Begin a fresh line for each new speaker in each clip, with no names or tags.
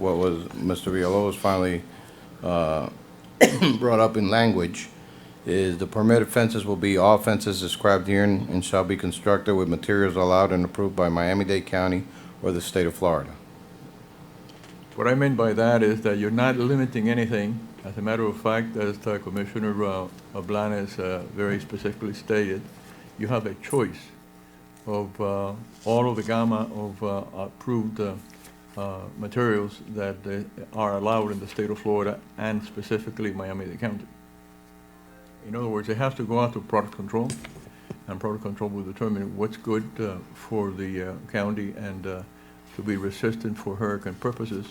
what was, Mr. Villalobos finally uh, brought up in language, is the permitted fences will be all fences described here and and shall be constructed with materials allowed and approved by Miami-Dade County or the state of Florida.
What I mean by that is that you're not limiting anything. As a matter of fact, as uh, Commissioner uh, Blanes uh, very specifically stated, you have a choice of uh, all of the gamma of uh, approved uh, uh, materials that uh, are allowed in the state of Florida and specifically Miami-Dade County. In other words, it has to go out to product control, and product control will determine what's good uh, for the uh, county and uh, to be resistant for hurricane purposes.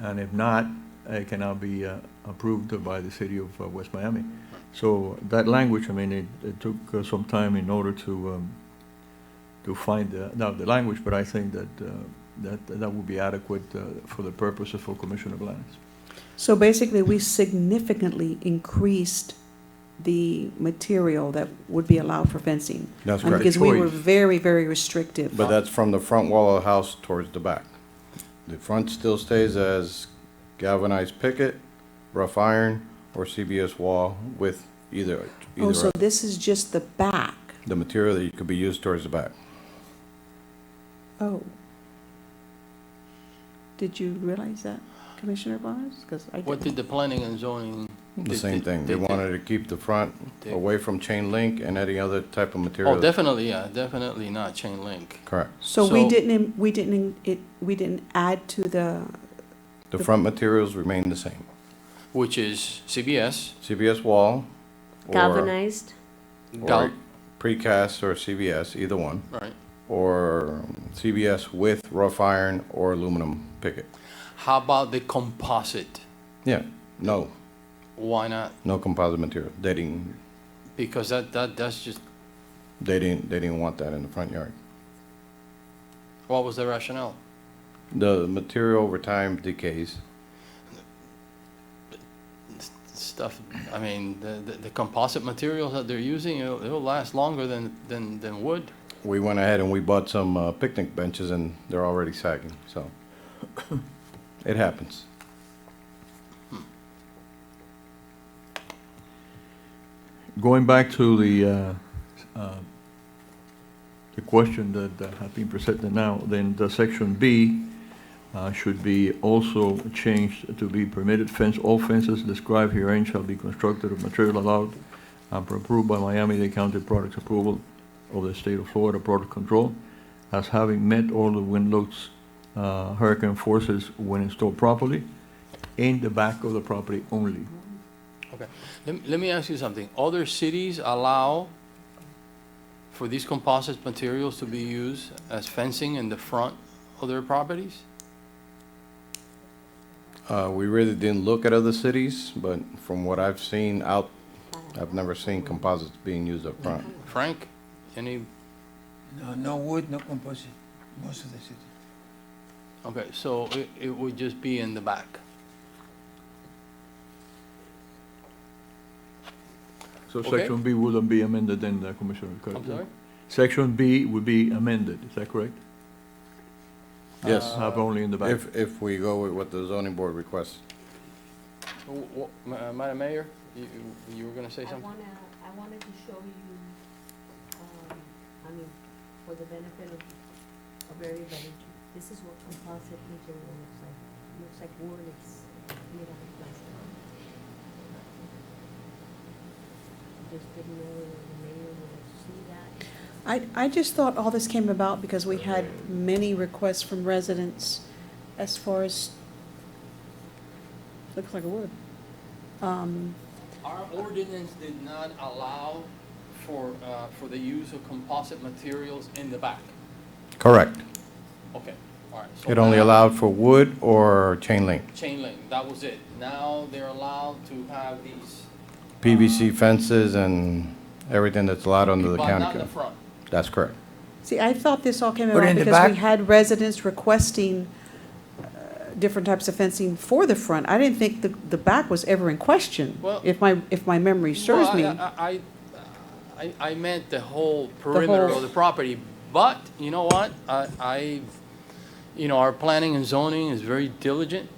And if not, it cannot be uh, approved by the city of uh, West Miami. So that language, I mean, it, it took uh, some time in order to, um, to find the- out the language, but I think that, uh, that, that would be adequate uh, for the purposes for Commissioner Blanes.
So basically, we significantly increased the material that would be allowed for fencing.
That's
Um,
correct.
Because we were
Choice.
very, very restrictive.
But that's from the front wall of the house towards the back. The front still stays as galvanized picket, rough iron, or CBS wall with either,
Oh,
either
so
of
this is just the back.
the material that could be used towards the back.
Oh. Did you realize that, Commissioner Barnes? Because I
What
didn't.
did the planning and zoning?
The same thing. They wanted to keep the front
They-
away from chain link and any other type of material.
Oh, definitely, yeah, definitely not chain link.
Correct.
So we
so-
didn't, im- we didn't, in- it, we didn't add to the,
The front materials remain the same.
which is CBS,
CBS wall or
galvanized.
gal,
Or- precast or CBS, either one,
right?
or CBS with rough iron or aluminum picket.
How about the composite?
Yeah, no,
Why not?
no composite material. They didn't,
Because that, that, that's just,
they didn't, they didn't want that in the front yard.
what was the rationale?
The material over time decays.
S- Stuff, I mean, the, the- the composite materials that they're using, it'll, it'll last longer than, than, than wood.
We went ahead and we bought some uh, picnic benches and they're already sagging, so it happens.
Going back to the, uh, uh, the question that that has been presented now, then the section B uh, should be also changed to be permitted fence, all fences described herein shall be constructed of material allowed and approved by Miami-Dade County Products Approval of the State of Florida Product Control as having met all the wind loads, uh, hurricane forces when installed properly in the back of the property only.
Let, let me ask you something. Other cities allow for these composite materials to be used as fencing in the front of their properties?
Uh, we really didn't look at other cities, but from what I've seen out, I've never seen composites being used up front.
Mm-hmm. Frank, any
No, no wood, no composite, most of the city.
Okay, so it, it would just be in the back.
So
Okay.
section B wouldn't be amended then, uh, Commissioner Curtis?
I'm sorry?
Section B would be amended, is that correct? Uh,
Yes.
Have only in the back.
If, if we go with what the zoning board requests.
W- w- Ma- uh, Madam Mayor, you, you- you were gonna say
I
something?
wanna, I wanted to show you, um, I mean, for the benefit of, of everybody, this is what composite material looks like. Looks like wood, it's made out of plastic. Just didn't know whether the mayor would see that.
I, I just thought all this came about because we had many requests from residents as far as, looks like a wood. Um,
Our ordinance did not allow for, uh, for the use of composite materials in the back.
Correct.
Okay, all right. so
It only
now-
allowed for wood or chain link.
Chain link, that was it. Now they're allowed to have these.
PVC fences and everything that's allowed under the
But not
county
in the
code.
front.
That's correct.
See, I thought this all came
Put it
about
in the
because we
back.
had residents requesting uh, different types of fencing for the front. I didn't think the, the back was ever in question,
Well-
if my, if my memory serves
Well,
me.
I- I, I, I I meant the whole perimeter
whole-
of the property, but you know what? I, I, you know, our planning and zoning is very diligent